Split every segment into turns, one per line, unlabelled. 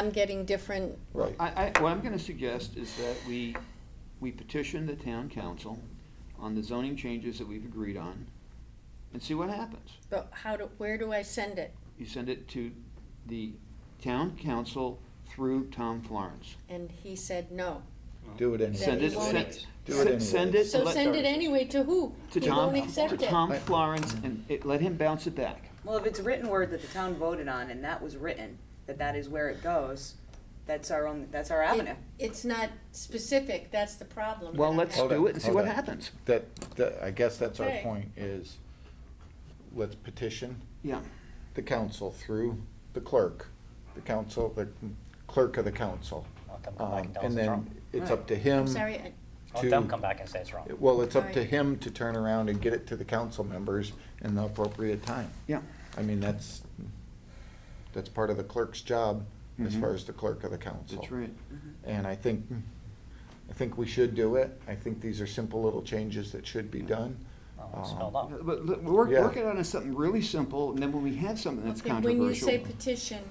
I'm getting different,
Right.
I, I, what I'm gonna suggest is that we, we petition the town council on the zoning changes that we've agreed on and see what happens.
but how do, where do I send it?
You send it to the town council through Tom Florence.
And he said no.
Do it anyway.
Send it,
won't-
send,
Do it
send- send it.
So
let-
send it anyway to who?
To
He won't
Tom, to
accept it.
Tom Florence and it, let him bounce it back.
Well, if it's written word that the town voted on and that was written, that that is where it goes, that's our own, that's our avenue.
It- It's not specific, that's the problem.
Well,
that I'm
let's
having.
Hold
do
on,
it and see
hold
what
on.
happens.
That, that, I guess that's our
Okay.
point is, let's petition
Yeah,
the council through the clerk, the council, the clerk of the council.
I'll come back
Um,
and tell
And
us it's
then
wrong.
it's up to
I'm
him.
sorry, I-
I'll
to-
them come back and say it's wrong.
Well, it's up to
Right.
him to turn around and get it to the council members in the appropriate time.
yeah.
I mean, that's, that's part of the clerk's job, as
Mhm.
far as the clerk of the council.
That's right.
And I think, I think we should do it. I think these are simple little changes that should be done.
Oh, it's spelled
Um,
out.
But, but work,
Yeah.
work it on as something really simple and then when we have something that's
okay, when you say
controversial.
petition,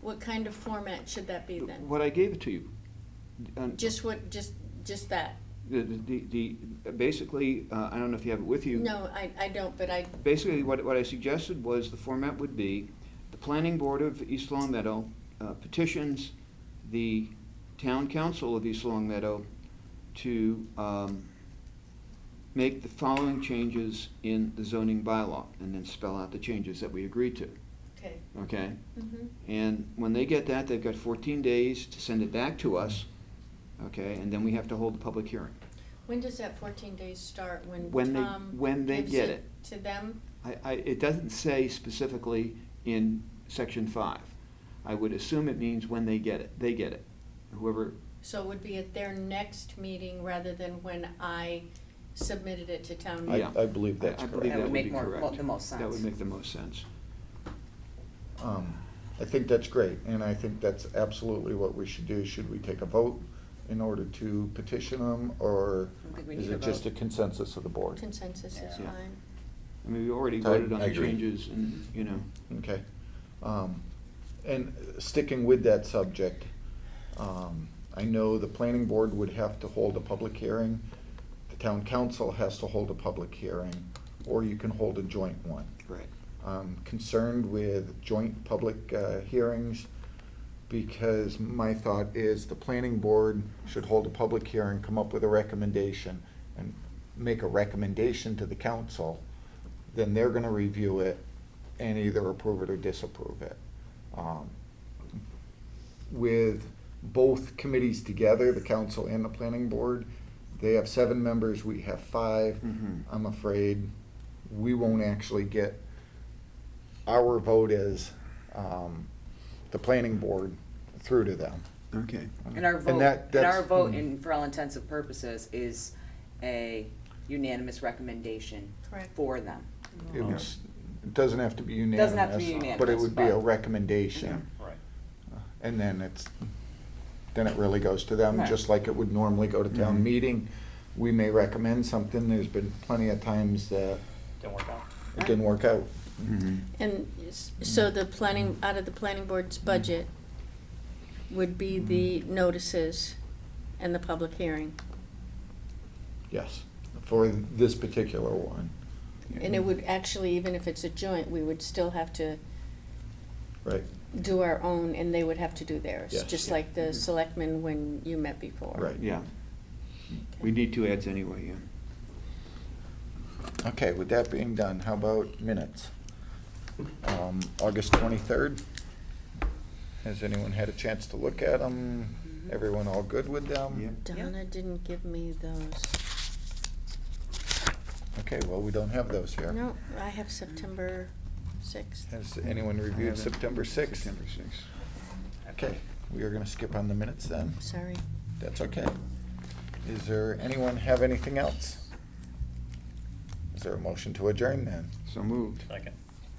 what kind of format should that be then?
What I gave it to you. uh, on-
Just what, just, just that?
The, the, the, the- basically, uh, I don't know if you have it with you.
No, I, I don't, but I,
Basically, what, what I suggested was the format would be, the planning board of East Long Meadow uh, petitions the town council of East Long Meadow to, um, make the following changes in the zoning bylaw, and then spell out the changes that we agreed to,
okay.
okay?
Mhm.
And when they get that, they've got fourteen days to send it back to us, okay, and then we have to hold a public hearing.
When does that fourteen days start? When
When they-
Tom
when they
gives
get
To them?
I, I, it doesn't say specifically in section five. I would assume it means when they get it, they get it, whoever,
So it would be at their next meeting rather than when I submitted it to town
I,
Yeah.
meeting?
I believe that's
I I believe
correct.
that
would
would
make
be
more-
correct.
mo- the most
That would
sense.
make the most sense.
Um, I think that's great, and I think that's absolutely what we should do. Should we take a vote in order to petition them, or
I don't think we
is
need a
it just a
vote.
consensus of the board?
Consensus is
Yeah.
fine.
I mean, we already
I-
voted on
I
the
agree.
changes and, you know,
Mm-hmm. Okay. Um, And sticking with that subject, um, I know the planning board would have to hold a public hearing, the town council has to hold a public hearing, or you can hold a joint one.
right.
I'm um, concerned with joint public uh, hearings because my thought is the planning board should hold a public hearing, come up with a recommendation, and make a recommendation to the council. Then they're gonna review it and either approve it or disapprove it. Um, With both committees together, the council and the planning board, they have seven members, we have five.
Mhm.
I'm afraid we won't actually get our vote is um, the planning board through to them.
Okay.
And our vote,
that-
and our
that's- hmm,
vote, in for all intents and purposes, is a unanimous recommendation
Correct.
for them.
It would s- it doesn't have to be unanimous.
Doesn't have to be
But it
unanimous,
would be a
but-
recommendation.
Right.
And then it's, then it really goes to them,
Right.
just like it would normally go to
Mhm.
town meeting. We may recommend something. There's been plenty of times that
Didn't work out.
it didn't work out.
Mm-hmm.
And s- so the planning, out of the planning board's budget would be
Mm-hmm.
the notices and the public hearing?
Yes, for this particular one,
And it would actually, even if it's a joint, we would still have to
right?
do our own and they would have to do theirs,
Yes. Mm-hmm.
just like the selectmen when you met before.
Right.
Yeah. We need two ads anyway, yeah.
Okay, with that being done, how about minutes? Um, August 23rd? Has anyone had a chance to look at them? Everyone all good with them?
Donna didn't give me those.
Okay, well, we don't have those here.
No, I have September sixth.
Has anyone reviewed September 6th?
September sixth.
Okay, we are gonna skip on the minutes then.
Sorry.
That's okay. Is there, anyone have anything else? Is there a motion to adjourn then?
So moved.
Second.